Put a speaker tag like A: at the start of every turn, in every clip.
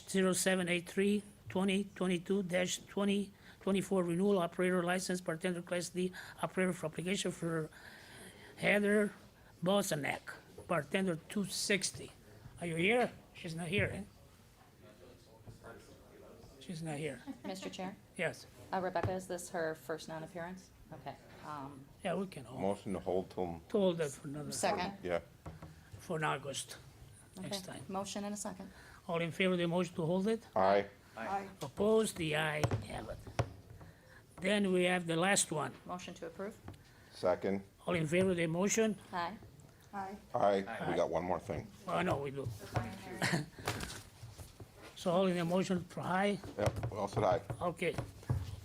A: 2022-0783, 2022-2024 renewal operator license, bartender class D operator for application for Heather Bosanek, bartender 260. Are you here? She's not here, eh? She's not here.
B: Mr. Chair,
A: Yes.
B: uh, Rebecca, is this her first non-appearance? Okay. um,
A: Yeah, we can hold,
C: Motion to hold till,
A: hold that for another,
B: Second.
C: yeah,
A: for in August, next
B: Okay.
A: time.
B: Motion and a second.
A: All in favor of the motion to hold it?
C: aye,
A: Opposed? The ayes have it. Then we have the last one.
B: Motion to approve?
C: second,
A: All in favor of the motion?
B: Aye.
C: aye. We got one more thing.
A: Oh, no, we do. So all in the motion for aye?
C: Yep, well said aye.
A: Okay.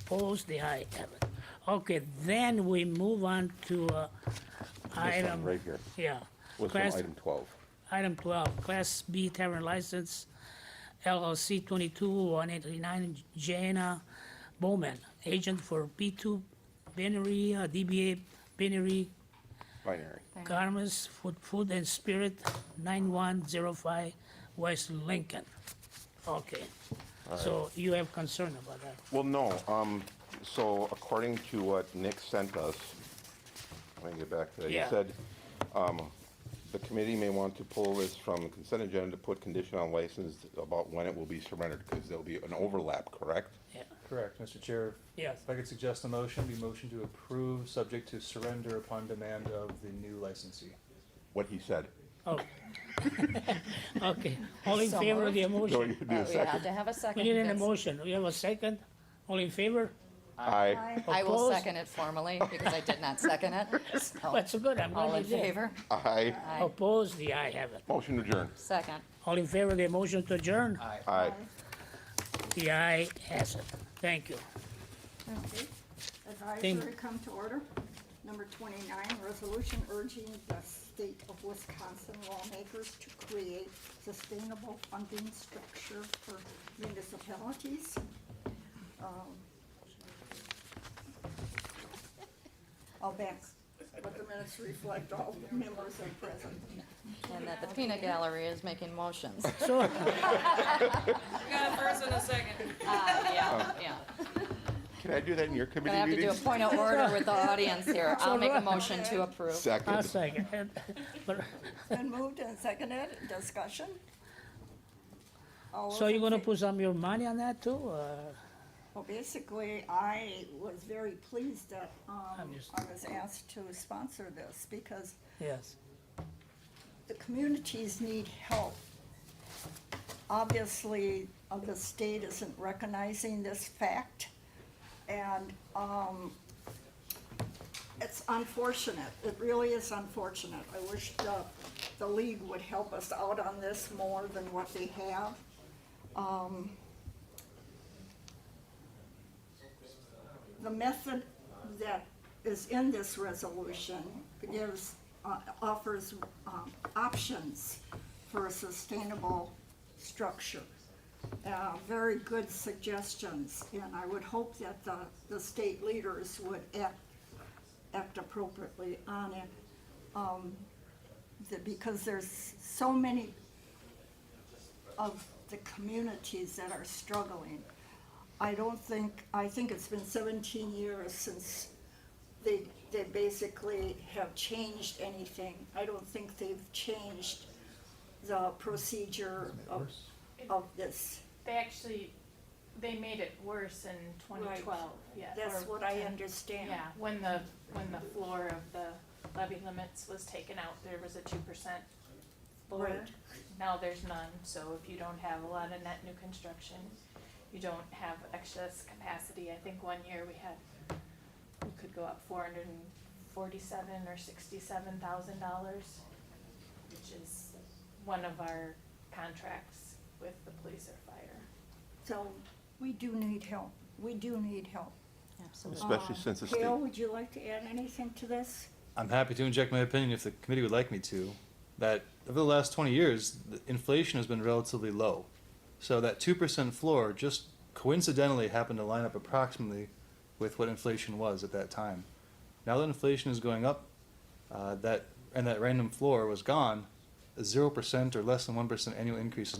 A: Opposed? The ayes have it. Okay, then we move on to uh,
C: This one
A: item,
C: right here.
A: yeah.
C: This one,
A: Class-
C: item twelve.
A: Item 12, Class B Tavern License LLC 22-189 Jana Bowman, agent for B2 Binary, uh, DBA Binary
C: Binary.
A: Garments, Food Food and Spirit, 9105 West Lincoln. Okay, so you have concern about that.
C: Well, no, um, so according to what Nick sent us, let me get back to that. He
A: Yeah.
C: said, um, the committee may want to pull this from the consent agenda to put condition on license about when it will be surrendered, because there'll be an overlap, correct?
A: Yeah,
D: Correct, Mr. Chair.
A: Yes.
D: If I could suggest a motion, be motion to approve, subject to surrender upon demand of the new licensee.
C: What he said.
A: Oh. Okay, all in
B: So
A: favor of the
B: Oh,
C: No,
A: motion?
C: you do a
B: Uh, We have
C: second.
B: to have a
A: We
B: second.
A: need an
B: because
A: emotion, we have a second? All in favor?
C: Aye,
B: I will
A: Opposed?
B: second it formally because I did not second it. So,
A: That's good, I'm
B: All
A: glad
B: in
A: you did.
B: favor?
C: aye.
B: Aye.
A: Opposed, the I have it.
C: Motion adjourned.
B: Second.
A: All in favor of the motion to adjourn?
C: Aye.
A: The aye has it. Thank you.
E: Okay. Advisory come to order. Number twenty-nine, resolution urging the state of Wisconsin lawmakers to create sustainable funding structure for municipalities. Um, I'll back, let the minutes reflect all members are present.
B: And that the peanut gallery is making motions.
A: So,
F: We got a first and a second.
B: Uh, Yeah, yeah.
C: Oh. Can I do that in your
B: Gonna
C: committee
B: have to do a
C: meetings?
B: point of order with the audience here. I'll make a motion to approve.
A: I'll
C: Second,
A: second. But-
E: Been moved and seconded, discussion? All
A: So
E: those
A: you're
E: in
A: gonna
E: fa-
A: put some of your money on that too? or-
E: Well, basically, I was very pleased that, um,
A: I'm just-
E: I was asked to sponsor this because
A: Yes.
E: the communities need help. Obviously, uh, the state isn't recognizing this fact, and um, it's unfortunate. It really is unfortunate. I wish the, the league would help us out on this more than what they have. Um, The method that is in this resolution gives, uh, offers um, options for a sustainable structure. Uh, Very good suggestions, and I would hope that the, the state leaders would act, act appropriately on it. um, that- Because there's so many of the communities that are struggling. I don't think, I think it's been seventeen years since they, they basically have changed anything. I don't think they've changed the procedure of, of this.
G: They actually, they made it worse in twenty twelve, yeah.
E: That's
G: or-
E: what I understand.
G: Yeah, when the, when the floor of the levy limits was taken out, there was a two percent floor.
E: Right.
G: Now there's none, so if you don't have a lot of net new construction, you don't have excess capacity. I think one year we had, we could go up four hundred and forty-seven or sixty-seven thousand dollars, which is one of our contracts with the police or fire.
E: So we do need help. We do need help.
B: Absolutely.
C: especially since the state.
E: Gail, would you like to add anything to this?
D: I'm happy to inject my opinion if the committee would like me to, that over the last twenty years, the inflation has been relatively low. So that two percent floor just coincidentally happened to line up approximately with what inflation was at that time. Now that inflation is going up, uh, that, and that random floor was gone, zero percent or less than one percent annual increase is